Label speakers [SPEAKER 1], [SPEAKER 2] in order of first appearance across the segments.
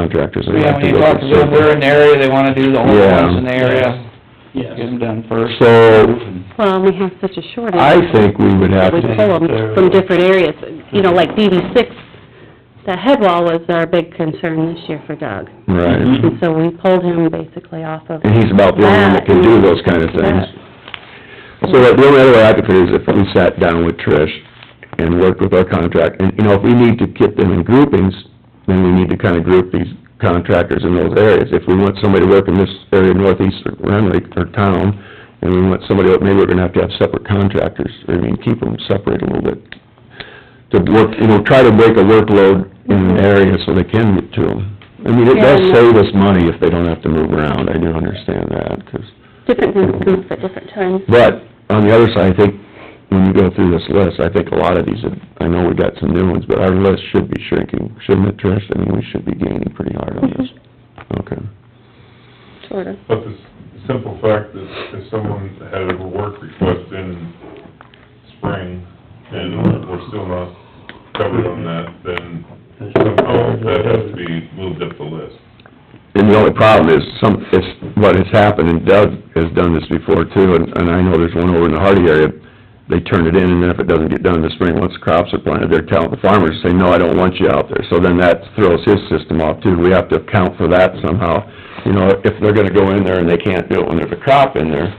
[SPEAKER 1] contractors. and
[SPEAKER 2] Yeah,
[SPEAKER 1] have
[SPEAKER 2] when
[SPEAKER 1] go
[SPEAKER 2] you talk to them,
[SPEAKER 1] consulting.
[SPEAKER 2] they're in the area, they wanna do the whole
[SPEAKER 1] Yeah.
[SPEAKER 2] ones in the area, get
[SPEAKER 3] Yes.
[SPEAKER 2] them done first.
[SPEAKER 1] So,
[SPEAKER 4] Well, we have such a shortage.
[SPEAKER 1] I think we would have
[SPEAKER 4] We
[SPEAKER 1] to,
[SPEAKER 4] pull them from different areas, you know, like DD six, the head wall was our big concern this year for Doug.
[SPEAKER 1] right,
[SPEAKER 4] And so we pulled him basically off of.
[SPEAKER 1] and he's about the only one that can do those kind of things. So the only other way I could put it is if we sat down with Trish and worked with our contract, and, you know, if we need to get them in groupings, then we need to kind of group these contractors in those areas. If we want somebody to work in this area northeast or Renwick or town, and we want somebody, else, maybe we're gonna have to have separate contractors, I mean, keep them separate a little bit. To work, you know, try to break a workload in an area so they can get to them. I mean, it does
[SPEAKER 4] Yeah, and-
[SPEAKER 1] save us money if they don't have to move around, I do understand that, 'cause
[SPEAKER 4] Different things come up at different times.
[SPEAKER 1] but, on the other side, I think, when you go through this list, I think a lot of these, have- I know we got some new ones, but our list should be shrinking, shouldn't it, Trish? I mean, we should be gaining pretty hard on this. Okay.
[SPEAKER 4] Sort of.
[SPEAKER 5] But the s- simple fact that if someone had a work request in spring and we're still not covered on that, then somehow that has to be moved up the list.
[SPEAKER 1] And the only problem is, some, it's, what has happened, and Doug has done this before too, and, and I know there's one over in the Hardy area, they turn it in, and then if it doesn't get done in the spring, once the crops are planted, they're telling the farmers, say, no, I don't want you out there. So then that throws his system off too, we have to account for that somehow. You know, if they're gonna go in there and they can't do it when there's a crop in there,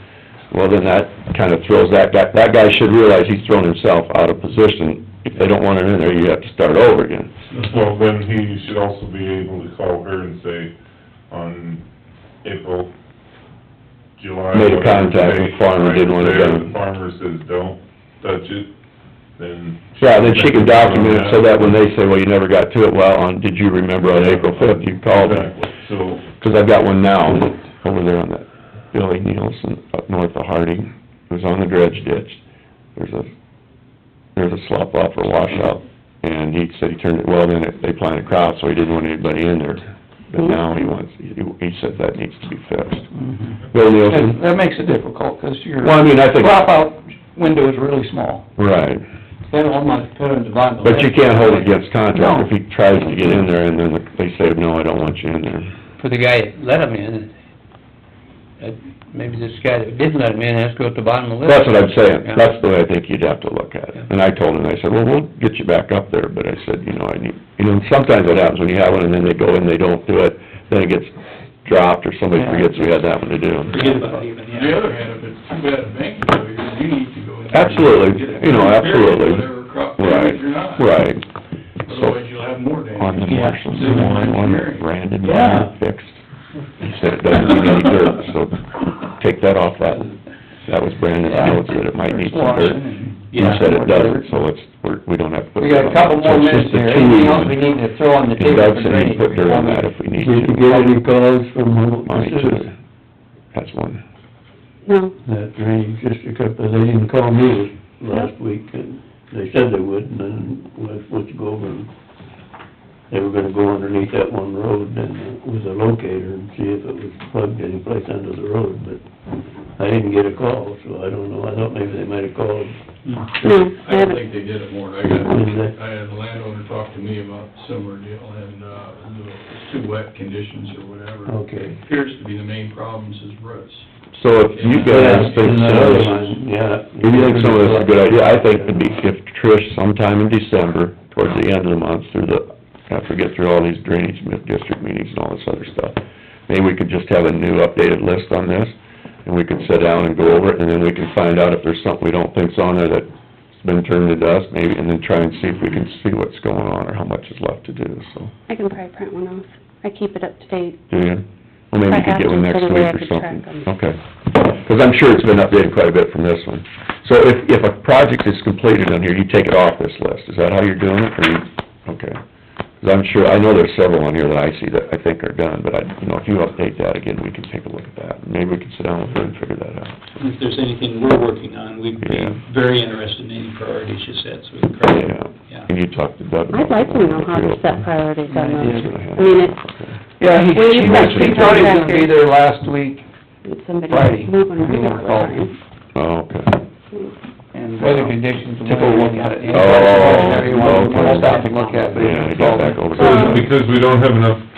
[SPEAKER 1] well, then that kind of throws that guy, that guy should realize he's thrown himself out of position. If they don't want it in there, you have to start over again.
[SPEAKER 5] Well, then he should also be able to call her and say, on April, July.
[SPEAKER 1] Made a
[SPEAKER 5] whatever
[SPEAKER 1] contact with
[SPEAKER 5] date,
[SPEAKER 1] farmer, didn't want it
[SPEAKER 5] right there,
[SPEAKER 1] done.
[SPEAKER 5] The farmer says, don't touch it, then.
[SPEAKER 1] Yeah, then she can document it so that when they say, well, you never got to it, well, on, did you remember on April fifth, you called me?
[SPEAKER 5] Exactly, so.
[SPEAKER 1] Cause I've got one now, over there on that Billy Nielsen, up north of Harding, it was on the dredge ditch. There's a, there's a slop off or washout, and he said he turned it, well, then it- they planted crops, so he didn't want anybody in there. But now he wants, he, he said that needs to be fixed.
[SPEAKER 2] Mhm.
[SPEAKER 1] Bill
[SPEAKER 2] That
[SPEAKER 1] Nielsen?
[SPEAKER 2] that makes it difficult, 'cause your
[SPEAKER 1] Well, I mean, I think,
[SPEAKER 2] crop out window is really small.
[SPEAKER 1] right,
[SPEAKER 3] Then all my parents buy the...
[SPEAKER 1] but you can't hold it against contract if he tries to get in there and then they say, no, I don't want you in there.
[SPEAKER 6] for the guy that let him in, that, maybe this guy that didn't let him in has to go at the bottom of the list.
[SPEAKER 1] That's what I'm saying,
[SPEAKER 6] Yeah.
[SPEAKER 1] that's the way I think you'd have to look at it. And I told him, I said, well, we'll get you back up there, but I said, you know, I need, you know, sometimes what happens when you have one and then they go and they don't do it, then it gets dropped or somebody
[SPEAKER 2] Yeah.
[SPEAKER 1] forgets we had that one to do.
[SPEAKER 3] Forget about it even,
[SPEAKER 7] On the
[SPEAKER 3] yeah.
[SPEAKER 7] other hand, if it's too bad a bank failure, you need to go in. there and
[SPEAKER 1] Absolutely,
[SPEAKER 7] get it
[SPEAKER 1] you know,
[SPEAKER 7] repaired,
[SPEAKER 1] absolutely.
[SPEAKER 7] Whatever crop
[SPEAKER 1] Right,
[SPEAKER 7] damage or not.
[SPEAKER 1] right. So,
[SPEAKER 7] Otherwise you'll have more damage.
[SPEAKER 1] on the
[SPEAKER 2] Yeah.
[SPEAKER 1] Marshall's one, one that Brandon
[SPEAKER 2] Yeah.
[SPEAKER 1] fixed, he said it doesn't need any dirt, so take that off that. That was Brandon's notes, that it might need some
[SPEAKER 2] Washing
[SPEAKER 1] dirt.
[SPEAKER 2] and-
[SPEAKER 1] You said it doesn't, so it's, we're, we don't have to put.
[SPEAKER 2] We got a couple more
[SPEAKER 1] So it's
[SPEAKER 2] minutes
[SPEAKER 1] just the
[SPEAKER 2] here,
[SPEAKER 1] two
[SPEAKER 2] anything else
[SPEAKER 1] one.
[SPEAKER 2] we need to throw on the
[SPEAKER 1] And
[SPEAKER 2] table
[SPEAKER 1] Doug
[SPEAKER 2] for
[SPEAKER 1] said he'd
[SPEAKER 2] drainage?
[SPEAKER 1] put dirt on that if we need to.
[SPEAKER 8] Did you get any calls from
[SPEAKER 1] On each
[SPEAKER 8] the,
[SPEAKER 1] other. That's one.
[SPEAKER 4] No,
[SPEAKER 8] that drainage district up there, they didn't call me last week, and they said they would, and then I was supposed to go over and they were gonna go underneath that one road and with a locator and see if it was plugged anyplace under the road, but I didn't get a call, so I don't know, I thought maybe they might have called.
[SPEAKER 4] no, I
[SPEAKER 7] I don't
[SPEAKER 4] haven't.
[SPEAKER 7] think they did it more. I got,
[SPEAKER 1] Mm-hmm.
[SPEAKER 8] Mhm.
[SPEAKER 7] I had a landowner talk to me about a similar deal and, uh, it's too wet conditions or whatever.
[SPEAKER 1] Oh.
[SPEAKER 8] Okay.
[SPEAKER 7] Appears to be the main problems is roots.
[SPEAKER 1] So if you guys think
[SPEAKER 8] And that
[SPEAKER 1] so,
[SPEAKER 8] other one, Yeah.
[SPEAKER 1] if uh, you think some of this is a good idea, I think it'd be, if Trish sometime in December, towards the end of the month, through the, after we get through all these drainage mi- district meetings and all this other stuff, maybe we could just have a new updated list on this, and we could sit down and go over it, and then we can find out if there's something we don't think's on there that's been turned to dust, maybe, and then try and see if we can see what's going on or how much is left to do, so.
[SPEAKER 4] I can probably print one off. I keep it up to date.
[SPEAKER 1] Do you? Well, maybe you could get one next
[SPEAKER 4] Perhaps,
[SPEAKER 1] week
[SPEAKER 4] so that
[SPEAKER 1] or something.
[SPEAKER 4] way I could track
[SPEAKER 1] Okay. Because I'm sure it's been updated quite a bit from this one. So if, if a project is completed on here, you take it off this list. Is that how you're doing it, or you, okay? Because I'm sure, I know there's several on here that I see that I think are done, but I, you know, if you update that again, we can take a look at that. Maybe we can sit down with her and figure that out.
[SPEAKER 3] If there's anything we're working on, we'd be
[SPEAKER 1] Yeah.
[SPEAKER 3] very interested in any priorities you set, so we can... crack it.
[SPEAKER 1] Yeah. And you talk to Doug about
[SPEAKER 4] I'd like to know how to
[SPEAKER 1] that.
[SPEAKER 4] set priorities on
[SPEAKER 1] It's
[SPEAKER 4] those.
[SPEAKER 1] gonna
[SPEAKER 4] I mean, it's,
[SPEAKER 2] Yeah, he,
[SPEAKER 4] Well,
[SPEAKER 2] he
[SPEAKER 4] you've
[SPEAKER 1] got
[SPEAKER 2] he thought he was gonna be
[SPEAKER 4] contractors.
[SPEAKER 2] there last week,
[SPEAKER 4] somebody
[SPEAKER 2] Friday.
[SPEAKER 4] moving
[SPEAKER 2] He
[SPEAKER 4] around
[SPEAKER 2] won't
[SPEAKER 4] all
[SPEAKER 2] call.
[SPEAKER 4] the time.
[SPEAKER 1] Oh, okay.
[SPEAKER 2] and weather conditions.
[SPEAKER 1] Took a look
[SPEAKER 2] at it.
[SPEAKER 1] Oh,
[SPEAKER 2] Everyone, we'll stop and look at it.
[SPEAKER 1] Yeah, I got back over there.
[SPEAKER 4] Um,
[SPEAKER 5] Because we don't have enough